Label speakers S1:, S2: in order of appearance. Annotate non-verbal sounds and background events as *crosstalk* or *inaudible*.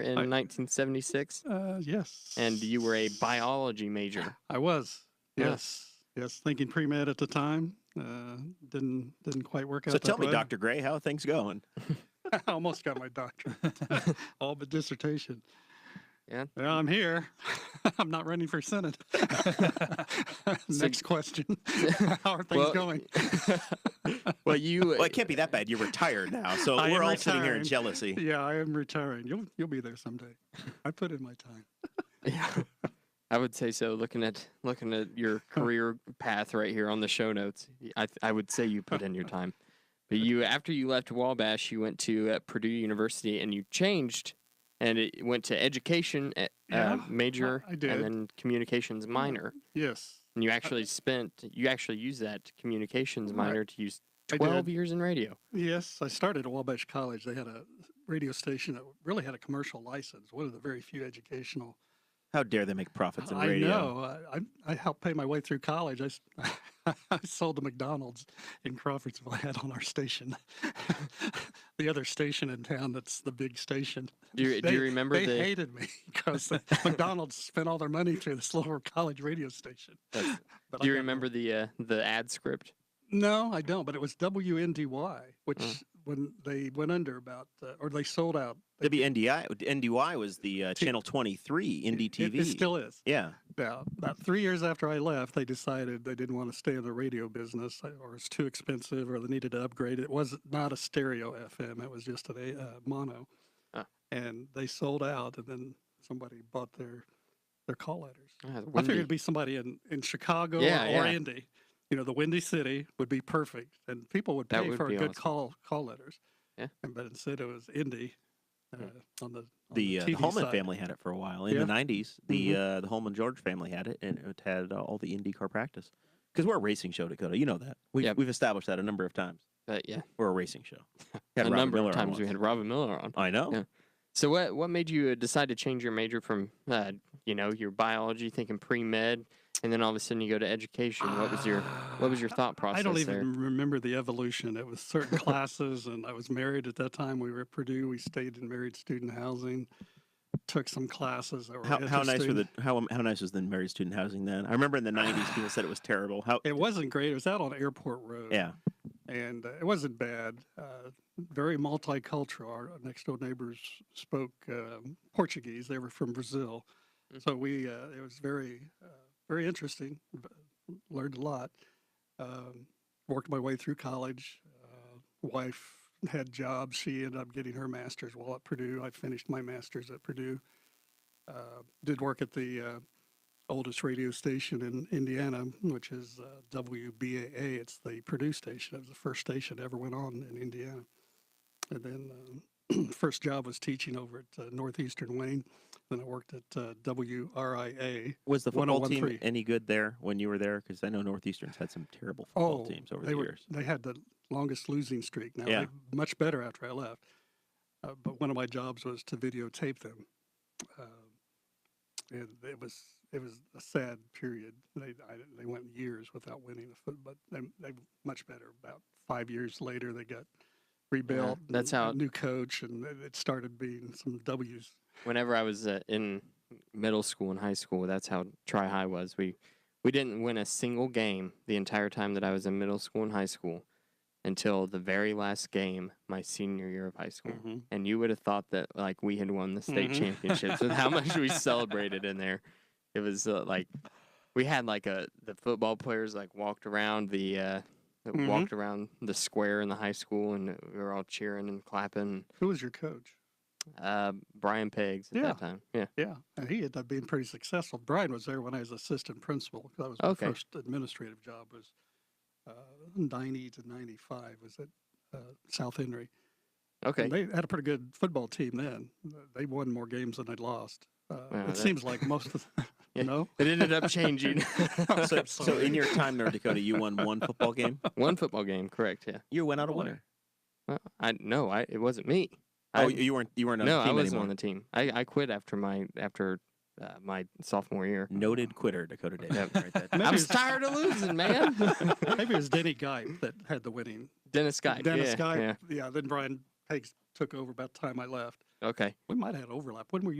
S1: in
S2: I-
S1: 1976,
S2: Uh, yes.
S1: and you were a biology major.
S2: I was.
S1: Yeah.
S2: Yes. Yes. Thinking pre med at the time. Uh, didn't didn't quite work out.
S3: So tell
S2: that
S3: me,
S2: way.
S3: Dr. Gray, how are things going?
S2: *laughs* I almost got my doctorate, *laughs* all but dissertation.
S1: Yeah.
S2: Well, I'm here. *laughs* I'm not running
S1: *laughs*
S2: for senate. *laughs* Next question. How are *laughs* things
S1: Well,
S2: *laughs* going?
S1: well, you
S2: uh,
S3: Well, it can't be that bad. You're retired now. *laughs* So
S2: I am
S3: we're all sitting here in
S2: retired.
S3: jealousy.
S2: Yeah, I am retiring. You'll you'll be there someday. I put in my time.
S1: Yeah, I would say so. Looking at looking at your career path right here on the show notes, I th- I would say you put
S2: *laughs*
S1: in your time. But you, after you left Wabash, you went to uh, Purdue University and you changed, and it went to education uh,
S2: Yeah,
S1: major
S2: I- I did.
S1: and then communications minor.
S2: Yes.
S1: And you actually spent you actually used that communications
S2: Right.
S1: minor to use
S2: I
S1: twelve
S2: did.
S1: years in radio.
S2: Yes, I started at Wabash College. They had a radio station that really had a commercial license. One of the very few educational.
S3: *laughs* How dare they make profits in
S2: I
S3: radio?
S2: know. I, I I helped pay my way through college. I, s- *laughs* I sold the McDonald's in Crawfordsville I had on our station, *laughs* the other station in town. That's the big station.
S1: Do you, do
S2: They-
S1: you remember
S2: they
S1: the?
S2: hated me *laughs* because McDonald's spent all their money through this little college radio station.
S1: that's-
S2: *laughs* But
S1: do you
S2: I got-
S1: remember the uh, the ad script?
S2: No, I don't. But it was WNDY, which
S1: Mm.
S2: when they went under about, uh, or they sold out. they-
S3: WNDI NDY was the uh, channel 23
S2: it-
S3: indie
S2: It,
S3: TV.
S2: it still is.
S3: yeah.
S2: Now, about three years after I left, they decided they didn't want to stay in the radio business, uh, or it's too expensive, or they needed to upgrade. It was not a stereo FM; it was just a uh, mono.
S1: Ah.
S2: And they sold out, and then somebody bought their their call letters.
S1: Ah,
S2: I figured
S1: Wendy.
S2: it'd be somebody in, in Chicago
S1: Yeah,
S2: or, or
S1: yeah.
S2: Indy. You know, the Windy City would be perfect, and people would
S1: That
S2: pay
S1: would
S2: for
S1: be
S2: a good
S1: awesome.
S2: call call letters.
S1: Yeah. Hmm.
S2: And, but instead, it was Indy uh, on the on
S3: The, uh, the
S2: TV
S3: Holman
S2: side.
S3: family had it for a while in
S2: Yeah. Mm-hmm.
S3: the 90s. The uh, the Holman George family had it, and it had uh, all the indie car practice. Because we're a racing show, Dakota. You know that. We've,
S1: Yep.
S3: we've established that a number of times.
S1: But yeah,
S3: We're a racing
S1: *laughs*
S3: show.
S1: a
S3: Had Robin
S1: number
S3: Miller
S1: of
S3: on
S1: times we
S3: once.
S1: had Robin Miller on.
S3: I know.
S1: Yeah. So what what made you uh, decide to change your major from uh, you know your biology, thinking pre med, and then all of a sudden you go to education? What was your what was your thought process?
S2: *sighs* I don't
S1: there?
S2: even remember the evolution. It
S1: *laughs*
S2: was certain classes, and I was married at that time. We were at Purdue. We stayed in married student housing. Took some classes that were
S3: How, how nice were
S2: interesting.
S3: the how how nice was the married student housing then? I remember in the '90s people said it was terrible. How
S2: It wasn't great. It was out on Airport Road.
S3: yeah,
S2: and uh, it wasn't bad. Uh, very multicultural. Our next door neighbors spoke um, Portuguese. They were from Brazil, so we uh, it was very uh, very interesting. b- Learned a lot. Um, worked my way through college. Uh, wife had jobs. She ended up getting her master's while at Purdue. I finished my master's at Purdue. Uh, did work at the uh, oldest radio station in Indiana, which is uh, WBAA. It's the Purdue station. It was the first station that ever went on in Indiana. And then um, *clears throat* first job was teaching over at uh, Northeastern Wayne. Then I worked at uh, WRIA.
S3: was the football team
S2: 1013.
S3: any good there when you were there? Because I know Northeastern's had some terrible football
S2: Oh,
S3: teams over
S2: they
S3: the
S2: were,
S3: *laughs* years.
S2: They had the longest losing streak. Now,
S3: Yeah.
S2: they much better after I left. Uh, but one of my jobs was to videotape them, Um and it was it was a sad period. They I, they went years without winning a foot, but they they were much better. About five years later, they got rebuilt.
S1: that's
S2: and
S1: how-
S2: a new coach, and it it started being some W's.
S1: Whenever I was uh, in middle school and high school, that's how Tri High was. We we didn't win a single game the entire time that I was in middle school and high school until the very last game my senior year of high school.
S2: Mhm.
S1: And you would have thought that like we had won the state championships with how much we celebrated in there. It was uh, like we had like a the football players like walked around the uh,
S2: Mhm.
S1: walked around the square in the high school and we were all cheering and clapping.
S2: Who was your coach?
S1: Uh, Brian Peggs at
S2: Yeah.
S1: that time. Yeah.
S2: Yeah, and he ended up being pretty successful. Brian was there when I was assistant principal. 'cause That was my
S1: Okay.
S2: first administrative job. Was uh, ninety to ninety five. Was at uh, South Henry.
S1: Okay.
S2: And they had a pretty good football team then. They won more games than they lost. Uh,
S1: Wow,
S2: it
S1: that-
S2: seems like most of the, *laughs*
S1: Yeah.
S2: no.
S1: It ended up changing *laughs*
S3: So,
S2: I'm
S3: so
S2: sorry.
S3: in your time there, Dakota, you won one football *laughs* game.
S1: one football game. Correct. Yeah.
S3: You went out a
S2: Boy.
S3: winner.
S1: Well, I no, I it wasn't me. I,
S3: oh, you you weren't you weren't on
S1: no,
S3: the
S1: I
S3: team
S1: wasn't
S3: anymore.
S1: on the team. I, I quit after my after uh, my sophomore year.
S3: Noted quitter, Dakota Davis.
S1: Yep.
S3: Right *laughs* there.
S2: Maybe
S1: I'm
S2: it's-
S1: tired of losing, man.
S2: Maybe it was Denny Guype that had the winning.
S1: Dennis Guy.
S2: Dennis
S1: yeah,
S2: Guype.
S1: Yeah.
S2: Yeah. Then Brian Peggs took over about the time I left.
S1: Okay.
S2: We might have had overlap. When were you?